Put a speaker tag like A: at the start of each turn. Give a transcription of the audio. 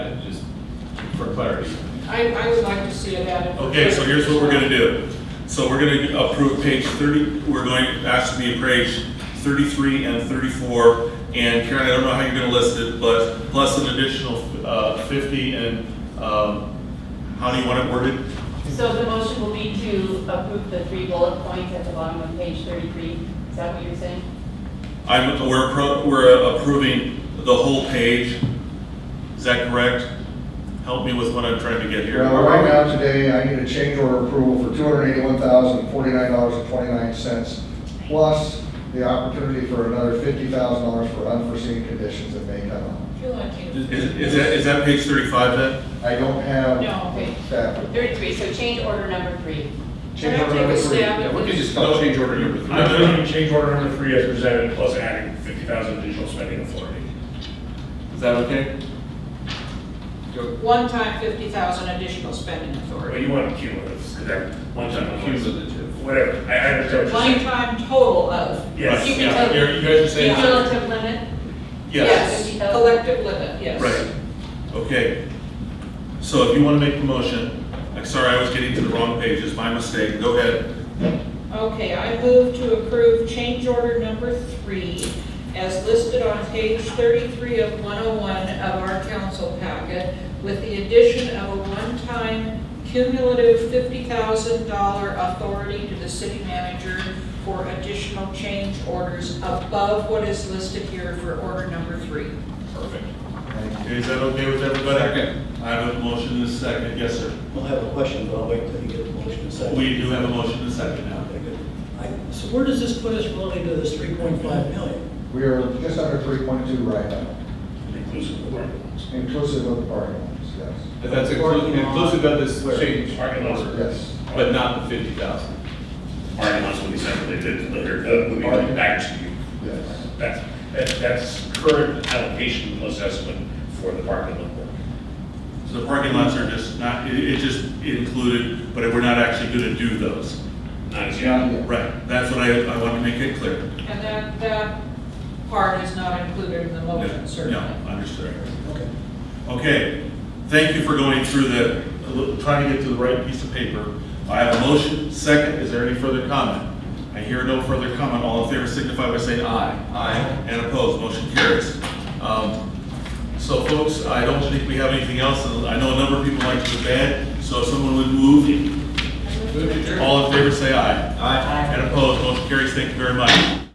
A: I, I would like to see it added.
B: Okay, so here's what we're gonna do. So we're gonna approve page thirty, we're going to ask to be appraised thirty-three and thirty-four. And Karen, I don't know how you're gonna list it, but plus an additional, uh, fifty and, um, how do you want it worded?
C: So the motion will be to approve the three bullet points at the bottom of page thirty-three. Is that what you're saying?
B: I'm, we're, appro- we're approving the whole page. Is that correct? Help me with what I'm trying to get here.
D: Well, right now, today, I need a change order approval for two hundred eighty-one thousand, forty-nine dollars and twenty-nine cents, plus the opportunity for another fifty thousand dollars for unforeseen conditions that may come up.
B: Is, is that, is that page thirty-five then?
D: I don't have
C: No, okay.
D: staff.
C: Thirty-three, so change order number three.
D: Change
A: Can I take
D: order
A: a
D: number three.
A: stab
E: Yeah,
A: at
E: we
A: this?
E: could just call change order number three.
F: I'm voting change order number three as presented, plus adding fifty thousand additional spending authority.
E: Is that okay?
A: One-time fifty thousand additional spending
F: Well,
A: authority.
F: you want cumulative, because that one time cumulative,
E: Cumulative.
F: whatever, I, I understand what you're saying.
A: One-time total of.
F: Yes.
A: You can
E: Yeah,
A: tell-
E: you're- you guys are saying.
C: Cumulative limit?
B: Yes.
A: Yes, collective limit, yes.
B: Right, okay. So if you want to make the motion, I'm sorry, I was getting to the wrong page, it's my mistake, go ahead.
A: Okay, I move to approve change order number three as listed on page 33 of 101 of our council packet with the addition of a one-time cumulative $50,000 authority to the city manager for additional change orders above what is listed here for order number three.
B: Perfect. Okay, Is that okay with everybody?
E: Second.
B: I have a motion and a second, yes, sir.
G: We'll have a question, but I'll wait until you get the motion and second.
B: We do have a motion and a second now.
G: Okay, good. I- So where does this put us relative to this three point five million?
D: We are just under three point two right now,
F: Inclusive of parking lots.
D: inclusive of the parking lots, yes.
E: But That's inclu- inclusive of this change.
F: Parking lots. are-
D: Yes.
E: But not the fifty thousand.
F: Parking lots will be separated later, uh, will be back to you.
D: Yes.
F: That's, that- that's current allocation plus estimate for the parking lot work.
B: So the parking lots are just not, it, it just included, but we're not actually going to do those.
F: Not as yet.
D: Not yet.
B: Right, that's what I, I want to make it clear.
A: And that, that part is not included in the
B: No,
A: motion,
B: No,
A: certainly.
B: understood.
G: Okay.
B: Okay, thank you for going through the, trying to get to the right piece of paper. I have a motion, second, is there any further comment? I hear no further comment, all in favor signify by saying aye. Aye. And opposed, motion carries. Um, So folks, I don't think we have anything else, and I know a number of people like to bed, so if someone would move, all in favor say aye. Aye. And opposed, motion carries, thank you very much.